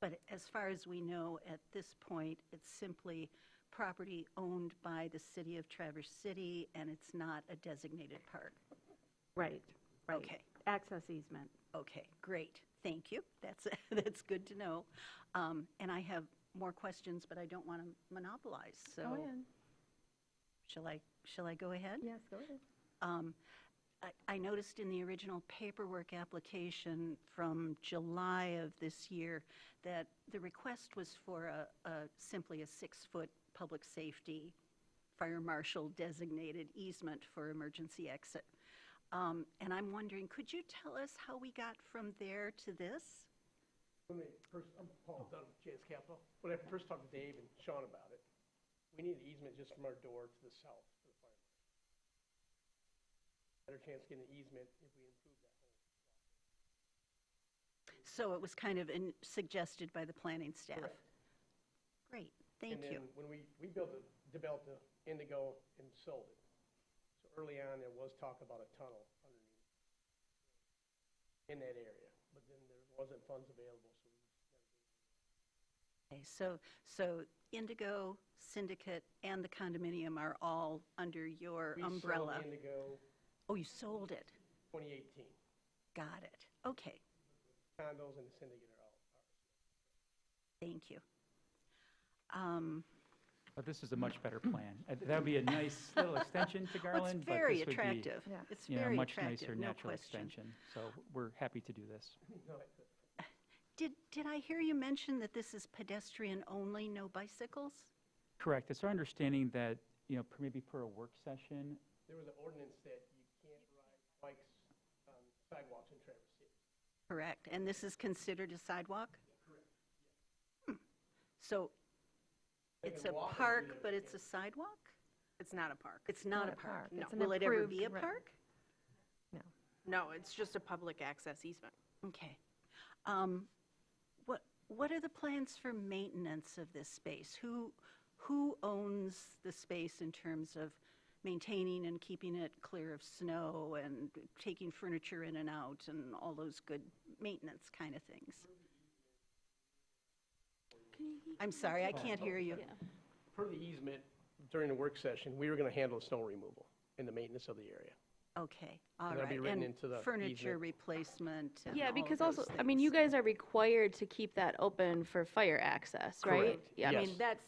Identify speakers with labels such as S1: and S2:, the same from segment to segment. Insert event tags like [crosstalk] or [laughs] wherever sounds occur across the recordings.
S1: But as far as we know, at this point, it's simply property owned by the city of Traverse City, and it's not a designated park.
S2: Right, right.
S1: Okay.
S2: Access easement.
S1: Okay, great, thank you, that's, [laughs] that's good to know. Um, And I have more questions, but I don't want to monopolize, so shall I, shall I go ahead?
S2: Yes, go ahead.
S1: Um, I- I noticed in the original paperwork application from July of this year that the request was for a, a- simply a six-foot public safety fire marshal designated easement for emergency exit. Um, And I'm wondering, could you tell us how we got from there to this?
S3: Let me, first, I'm Paul Dunham, JS Capital. When I first talked to Dave and Sean about it, we need an easement just from our door to the south for the fire. marshal. Better chance of getting an easement if we improve that whole.
S1: So it was kind of in- suggested by the planning staff.
S3: Correct.
S1: Great, thank you.
S3: And then when we, we built, the- developed the Indigo and sold it. So early on, there was talk about a tunnel underneath in that area, but then there wasn't funds available, so we
S1: Okay, so, so Indigo, Syndicate, and the condominium are all under your
S3: we sold
S1: umbrella?
S3: Indigo
S1: Oh, you sold it?
S3: 2018.
S1: Got it. Okay,
S3: Condos and the syndicate are all.
S1: thank you. Um,
S4: But this is a much better plan. Uh, That would be a nice little extension to
S1: [laughs] well, It's
S4: Garland, but
S1: very
S4: this would be,
S1: attractive.
S2: Yeah.
S1: It's
S4: you know,
S1: very
S4: much
S1: attractive,
S4: nicer
S1: no
S4: natural
S1: question.
S4: extension. So we're happy to do this.
S3: No, I-
S1: Did, did I hear you mention that this is pedestrian only, no bicycles?
S4: Correct. It's our understanding that, you know, per- maybe per a work session,
S3: There was an ordinance that you can't ride bikes on sidewalks in Traverse City.
S1: Correct, and this is considered a sidewalk? Hmm.
S3: Correct.
S1: So
S3: They
S1: it's
S3: can
S1: a
S3: walk and do
S1: park,
S3: their
S1: but it's a
S3: thing.
S1: sidewalk?
S5: It's not a park.
S1: It's not a
S2: a
S1: park?
S2: park. It's an
S1: Will it ever be a
S2: approved re-
S1: park?
S5: No, it's just a public access easement.
S1: Okay. Um, What, what are the plans for maintenance of this space? Who, who owns the space in terms of maintaining and keeping it clear of snow and taking furniture in and out and all those good maintenance kind of things? I'm sorry, I can't hear you.
S3: Per the easement, during the work session, we were going to handle snow removal and the maintenance of the area.
S1: Okay, all right.
S3: That'll be written
S1: And
S3: into the
S1: Furniture
S3: easement.
S1: replacement and all
S6: Yeah,
S1: of
S6: because
S1: those
S6: also, I mean, you
S1: things.
S6: guys are required to keep that open for fire access, right?
S3: Correct.
S6: Yeah, I mean,
S3: Yes.
S6: that's,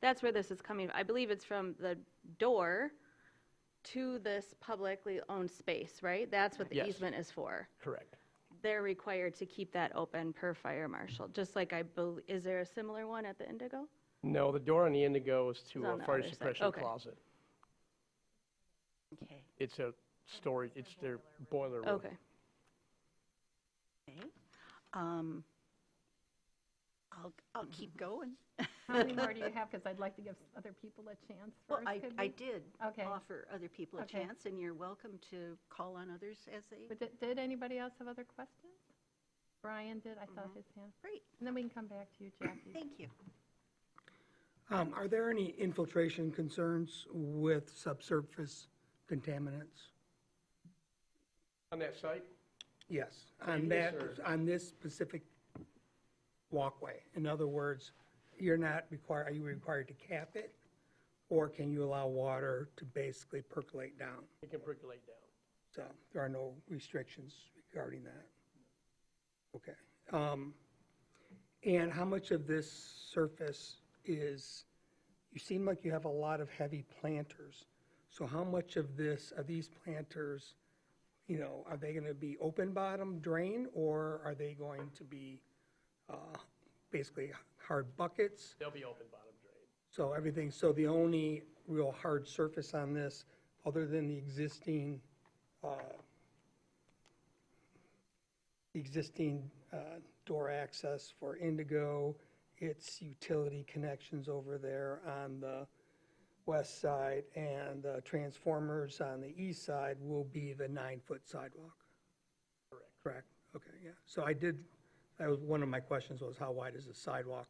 S6: that's where this is coming. I believe it's from the door to this publicly owned space, right? That's what the
S3: Yes.
S6: easement is for.
S3: Correct.
S6: They're required to keep that open per fire marshal, just like I bel is there a similar one at the Indigo?
S3: No, the door on the Indigo is to
S6: It's
S3: a
S6: on the
S3: fire
S6: other side.
S3: suppression
S6: Okay.
S3: closet.
S1: Okay.
S3: It's a storage, it's their boiler room.
S6: Okay.
S1: Okay. Um, I'll, I'll keep
S7: Mm-hmm.
S1: going.
S7: How many more do you have? Because I'd like to give s- other people a chance
S1: Well,
S7: first.
S1: I,
S7: could
S1: I
S7: we?
S1: did
S7: Okay.
S1: offer other people a
S7: Okay.
S1: chance, and you're welcome to call on others as they,
S7: But did- Did anybody else have other questions? Brian did, I saw his hand.
S1: great,
S7: And then we can come back to you, Jackie.
S1: Mm-hmm. thank you.
S8: Um, Are there any infiltration concerns with subsurface contaminants?
S3: On that site,
S8: Yes, on
S3: Previous
S8: that,
S3: or-
S8: on this specific walkway. In other words, you're not required, are you required to cap it? Or can you allow water to basically percolate down?
S3: it can percolate down.
S8: So there are no restrictions regarding that. Okay. Um, And how much of this surface is, you seem like you have a lot of heavy planters. So how much of this, of these planters, you know, are they going to be open bottom drain or are they going to be uh, basically hard buckets?
S3: They'll be open bottom drain.
S8: So everything, so the only real hard surface on this, other than the existing, uh, existing uh, door access for Indigo, its utility connections over there on the west side, and the transformers on the east side will be the nine-foot sidewalk. Correct. Correct, okay, yeah. So I did, that was, one of my questions was how wide is the sidewalk?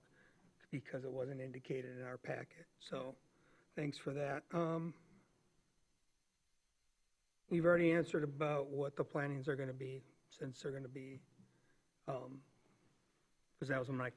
S8: Because it wasn't indicated in our packet, so thanks for that. Um, You've already answered about what the plannings are gonna be, since they're gonna be, um, because that was my